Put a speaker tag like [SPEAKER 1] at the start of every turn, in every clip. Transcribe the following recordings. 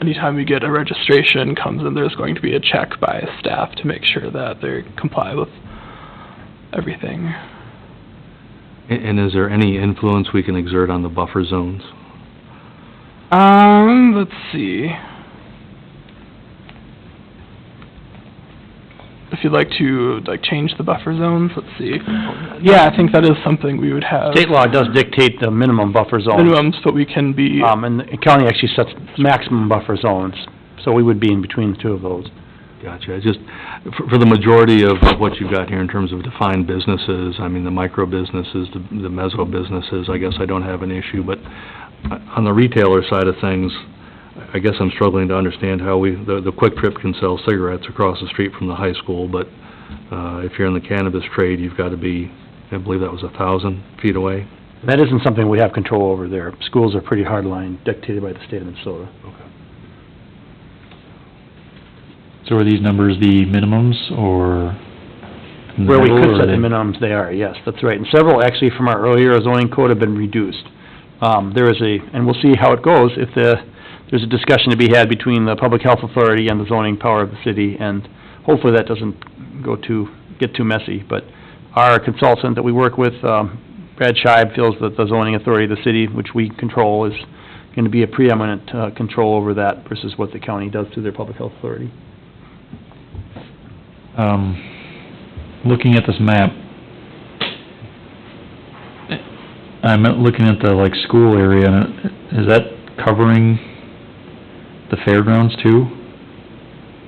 [SPEAKER 1] anytime you get a registration comes in, there's going to be a check by staff to make sure that they comply with everything.
[SPEAKER 2] A- And is there any influence we can exert on the buffer zones?
[SPEAKER 1] Um, let's see. If you'd like to, like, change the buffer zones, let's see. Yeah, I think that is something we would have.
[SPEAKER 3] State law does dictate the minimum buffer zones.
[SPEAKER 1] Minimums, but we can be,
[SPEAKER 3] Um, and the county actually sets maximum buffer zones, so we would be in between the two of those.
[SPEAKER 2] Gotcha, I just, for, for the majority of of what you've got here in terms of defined businesses, I mean, the micro businesses, the the meso businesses, I guess I don't have an issue, but uh, on the retailer side of things, I guess I'm struggling to understand how we, the, the Quick Trip can sell cigarettes across the street from the high school, but, uh, if you're in the cannabis trade, you've gotta be, I believe that was a thousand feet away?
[SPEAKER 3] That isn't something we have control over there. Schools are pretty hard line dictated by the state of Minnesota.
[SPEAKER 4] So are these numbers the minimums, or in the
[SPEAKER 3] Where we
[SPEAKER 4] middle,
[SPEAKER 3] could
[SPEAKER 4] or
[SPEAKER 3] set the
[SPEAKER 4] they-
[SPEAKER 3] minimums, they are, yes, that's right. And several actually from our earlier zoning code have been reduced. Um, there is a, and we'll see how it goes, if the, there's a discussion to be had between the public health authority and the zoning power of the city, and hopefully that doesn't go too, get too messy, but our consultant that we work with, um, Brad Scheib, feels that the zoning authority of the city, which we control, is gonna be a preeminent, uh, control over that versus what the county does through their public health authority.
[SPEAKER 4] Um, looking at this map, I'm looking at the, like, school area, and it- is that covering the fairgrounds too?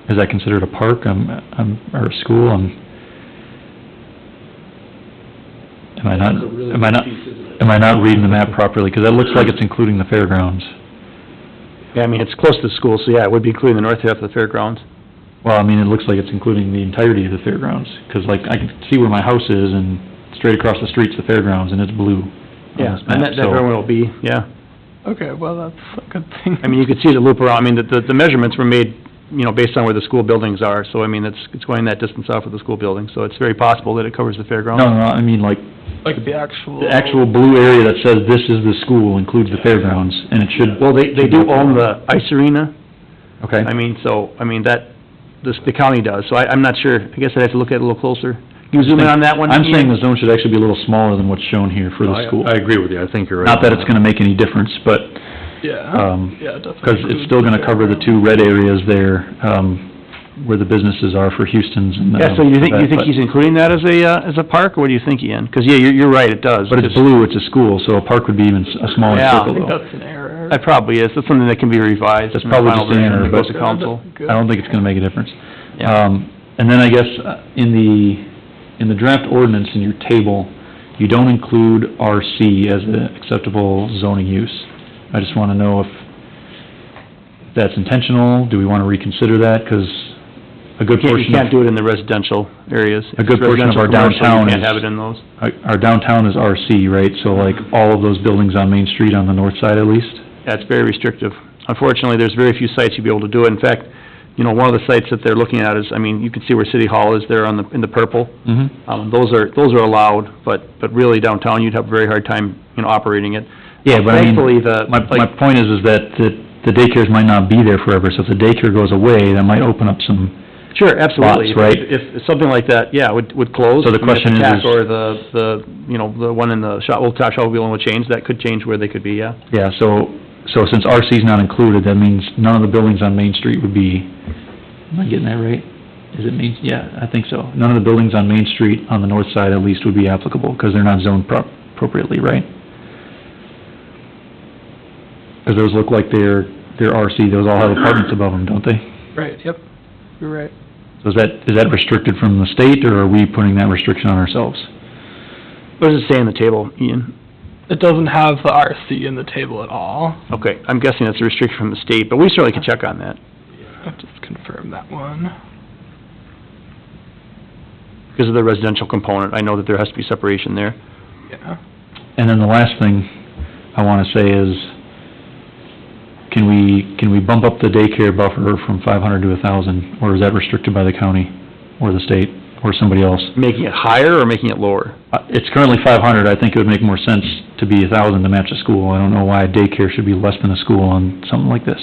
[SPEAKER 4] Is that considered a park, um, um, or a school, um? Am I not, am I not, am I not reading the map properly? Because that looks like it's including the fairgrounds.
[SPEAKER 3] Yeah, I mean, it's close to the school, so yeah, it would be including the north half of the fairgrounds.
[SPEAKER 4] Well, I mean, it looks like it's including the entirety of the fairgrounds, 'cause like, I can see where my house is, and straight across the street's the fairgrounds, and it's blue on
[SPEAKER 3] Yeah,
[SPEAKER 4] this
[SPEAKER 3] and
[SPEAKER 4] map,
[SPEAKER 3] that, that very
[SPEAKER 4] so...
[SPEAKER 3] well will be, yeah.
[SPEAKER 1] okay, well, that's a good thing.
[SPEAKER 3] I mean, you could see the loop around, I mean, the- the, the measurements were made, you know, based on where the school buildings are, so I mean, it's, it's going that distance off of the school building, so it's very possible that it covers the fairground.
[SPEAKER 4] No, no, I mean, like,
[SPEAKER 1] Like the actual.
[SPEAKER 4] the actual blue area that says this is the school includes the fairgrounds, and it should...
[SPEAKER 3] Well, they, they do own the ice arena,
[SPEAKER 4] Okay,
[SPEAKER 3] I mean, so, I mean, that, this, the county does, so I, I'm not sure, I guess I'd have to look at it a little closer. Can you zoom in on that one?
[SPEAKER 4] I'm
[SPEAKER 3] Ian?
[SPEAKER 4] saying the zone should actually be a little smaller than what's shown here for the school.
[SPEAKER 2] Oh, I agree with you, I think you're right.
[SPEAKER 4] Not that it's gonna make any difference, but,
[SPEAKER 1] Yeah,
[SPEAKER 4] um,
[SPEAKER 1] yeah, definitely.
[SPEAKER 4] because it's still gonna cover the two red areas there, um, where the businesses are for Houston's and... uh,
[SPEAKER 3] Yeah, so you think, you
[SPEAKER 4] that,
[SPEAKER 3] think
[SPEAKER 4] but-
[SPEAKER 3] he's including that as a, uh, as a park, or what do you think, Ian? Because, yeah, you're, you're right, it does.
[SPEAKER 4] But it's
[SPEAKER 3] Just-
[SPEAKER 4] blue, it's a school, so a park would be even s- a smaller
[SPEAKER 3] Yeah.
[SPEAKER 1] I
[SPEAKER 4] circle
[SPEAKER 1] think
[SPEAKER 4] though.
[SPEAKER 1] that's an error.
[SPEAKER 3] That probably is, that's something that can be revised.
[SPEAKER 4] That's
[SPEAKER 3] in the
[SPEAKER 4] probably
[SPEAKER 3] final
[SPEAKER 4] just an
[SPEAKER 3] version
[SPEAKER 4] error,
[SPEAKER 3] that goes
[SPEAKER 4] but-
[SPEAKER 3] to council.
[SPEAKER 4] I don't think it's gonna make a difference.
[SPEAKER 3] Yeah.
[SPEAKER 4] Um, and then I guess uh, in the, in the draft ordinance in your table, you don't include RC as an acceptable zoning use. I just wanna know if that's intentional, do we wanna reconsider that? Cause a good
[SPEAKER 3] Can't- You
[SPEAKER 4] portion
[SPEAKER 3] can't
[SPEAKER 4] of,
[SPEAKER 3] do it in the residential areas.
[SPEAKER 4] A good portion of our
[SPEAKER 3] Residential, commercial,
[SPEAKER 4] downtown
[SPEAKER 3] You can't
[SPEAKER 4] is-
[SPEAKER 3] have it in those.
[SPEAKER 4] our downtown is RC, right? So like all of those buildings on Main Street on the north side at least?
[SPEAKER 3] That's very restrictive. Unfortunately, there's very few sites you'd be able to do it. In fact, you know, one of the sites that they're looking at is, I mean, you can see where City Hall is there on the, in the purple.
[SPEAKER 4] Mm-hmm.
[SPEAKER 3] Um, those are, those are allowed, but, but really downtown, you'd have a very hard time, you know, operating it.
[SPEAKER 4] Yeah, but I mean,
[SPEAKER 3] Thankfully, the,
[SPEAKER 4] my, my
[SPEAKER 3] like,
[SPEAKER 4] point is, is that the the daycares might not be there forever, so if the daycare goes away, that might open up some,
[SPEAKER 3] sure, absolutely.
[SPEAKER 4] lots, right?
[SPEAKER 3] If, if something like that, yeah, would, would close.
[SPEAKER 4] So the
[SPEAKER 3] I mean, if
[SPEAKER 4] question is-
[SPEAKER 3] tack Or the, the, you know, the one in the shop, old top shop will would change, that could change where they could be, yeah.
[SPEAKER 4] yeah, so, so since RC's not included, that means none of the buildings on Main Street would be, am I getting that right? Is it Main, yeah, I think so. None of the buildings on Main Street, on the north side at least, would be applicable, because they're not zoned prop- appropriately, right? Because those look like they're, they're RC, those all have apartments above them, don't they?
[SPEAKER 1] Right, yep, you're right.
[SPEAKER 4] So is that, is that restricted from the state, or are we putting that restriction on ourselves?
[SPEAKER 3] What does it say in the table, Ian?
[SPEAKER 1] It doesn't have the RC in the table at all.
[SPEAKER 3] Okay, I'm guessing it's a restriction from the state, but we certainly could check on that.
[SPEAKER 1] I'll just confirm that one.
[SPEAKER 3] Because of the residential component, I know that there has to be separation there.
[SPEAKER 1] Yeah.
[SPEAKER 4] And then the last thing I wanna say is, can we, can we bump up the daycare buffer from five hundred to a thousand? Or is that restricted by the county, or the state, or somebody else?
[SPEAKER 3] Making it higher or making it lower?
[SPEAKER 4] Uh, It's currently five hundred, I think it would make more sense to be a thousand to match a school. I don't know why a daycare should be less than a school on something like this.